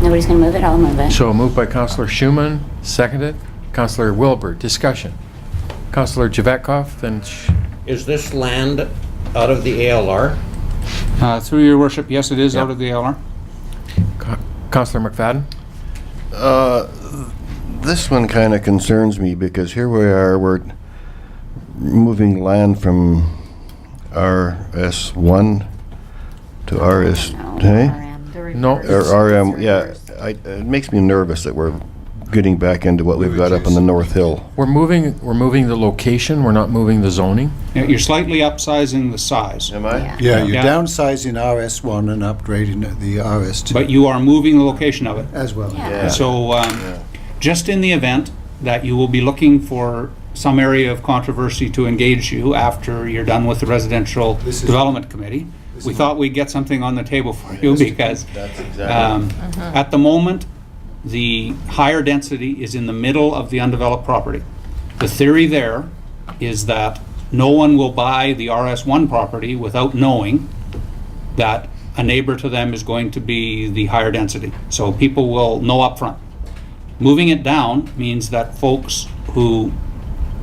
somebody's going to move it, I'll move it. So moved by Counselor Schumann, seconded. Counselor Wilbur, discussion. Counselor Javetkov, then Sh- Is this land out of the ALR? Uh, Through your worship, yes, it is out Yeah. of the LR. Co- Counselor McFadden. This one kind of concerns me because here we are, we're moving land from RS1 to RS, hey? No, Or RM, yeah, I- it makes me nervous that we're getting back into what we've got up on the North Hill. We're moving, we're moving the location, we're not moving the zoning. You're slightly upsizing the size, Am I? Yeah, you're Yeah. downsizing RS1 and upgrading the RS2 but you are moving the location of it. as well. Yeah. Yeah. So, um, just in the event that you will be looking for some area of controversy to engage you after you're done with the residential This is- development committee, we thought we'd get something on the table for you because That's um, at the moment, the higher density is in the middle of the undeveloped property. The theory there is that no one will buy the RS1 property without knowing that a neighbor to them is going to be the higher density. So people will know upfront. Moving it down means that folks who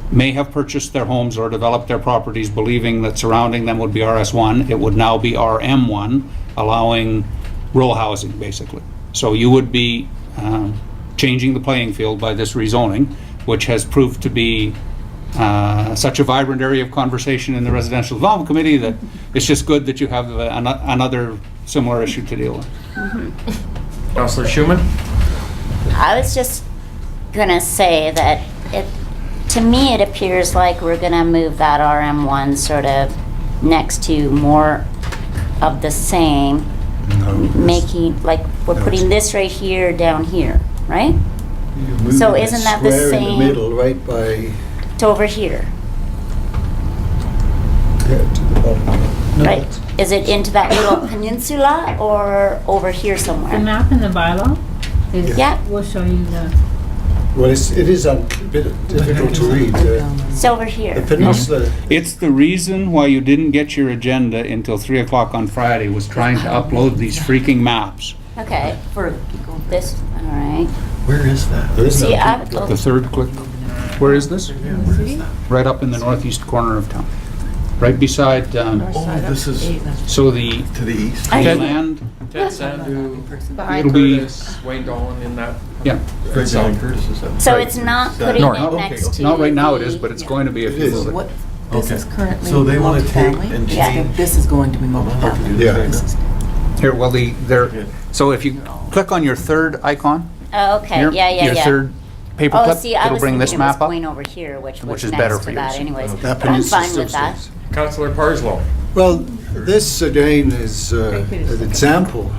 may have purchased their homes or developed their properties believing that surrounding them would be RS1, it would now be RM1, allowing row housing, basically. So you would be um, changing the playing field by this rezoning, which has proved to be uh, such a vibrant area of conversation in the Residential Development Committee that it's just good that you have uh, ano- another similar issue to deal with. Counselor Schumann? I was just gonna say that it, to me, it appears like we're gonna move that RM1 sort of next to more of the same, making, like, we're No, putting it's- this right here, down here, right? You're moving So isn't that the Square in same- the middle, right by, To over here, yeah, to the bottom. No, right? it's- Is it into that little peninsula or over here somewhere? The map in the bylaw is, Yeah. will show you the, Well, it's, it is a bit difficult to read. uh, It's over The here. peninsula, It's the reason why you didn't get your agenda until 3 o'clock on Friday, was trying to upload these freaking maps. Okay, for this, all right. where is that? There is no See, oh, peak I've, The third click. Where is this? Right up in the northeast corner of town, right beside, um, Oh, this is so the to the east. I- Okay. land, Ted Sandu, it'll be, Wayne Dolan in that. yeah. Fred Allen Curtis is up. so Right. it's not Is that- putting North. it Not- next to. Not right now it is, the- but it's going to be if you move it. This is currently. So they want to take and Yeah. change. This is going to be multifamily. Yeah. Here, well, the, there, so if you click on your third icon, Oh, okay, your, yeah, yeah, yeah. your third paper Oh, clip, see, I it'll was bring thinking this it was map up. going over here, which was is better next for to you, that so- anyways. That But I'm peninsula fine with still that. stays. Counselor Parslow? Well, this again is uh, an example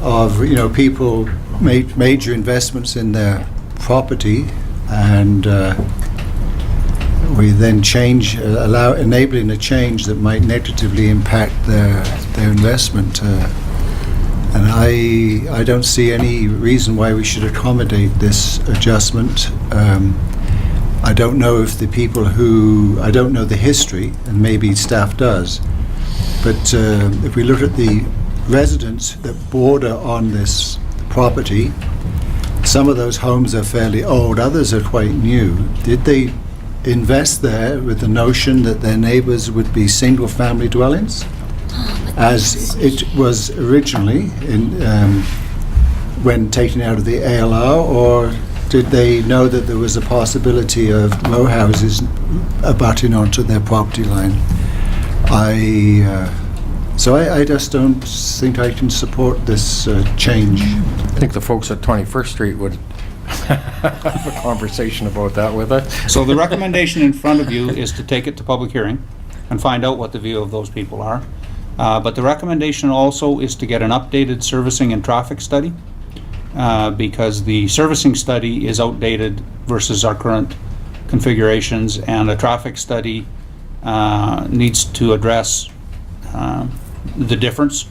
of, you know, people made major investments in their property and uh, we then change, uh, allow, enabling a change that might negatively impact their, their investment. uh, And I, I don't see any reason why we should accommodate this adjustment. Um, I don't know if the people who, I don't know the history, and maybe staff does, but uh, if we look at the residents that border on this property, some of those homes are fairly old, others are quite new. Did they invest there with the notion that their neighbours would be single-family dwellings? As it was originally in, um, when taken out of the ALR, or did they know that there was a possibility of row houses abutting onto their property line? I, uh, so I, I just don't think I can support this uh, change. I think the folks at 21st Street would have a conversation about that with us. So the recommendation in front of you is to take it to public hearing and find out what the view of those people are. Uh, But the recommendation also is to get an updated servicing and traffic study, uh, because the servicing study is outdated versus our current configurations, and a traffic study uh, needs to address um, the difference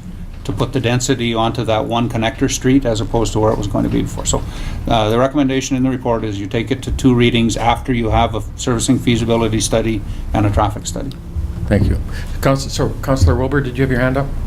to put the density onto that one connector street as opposed to where it was going to be before. So uh, the recommendation in the report is you take it to two readings after you have a servicing feasibility study and a traffic study. Thank you. Counsel- So Counselor Wilbur, did you have your hand up?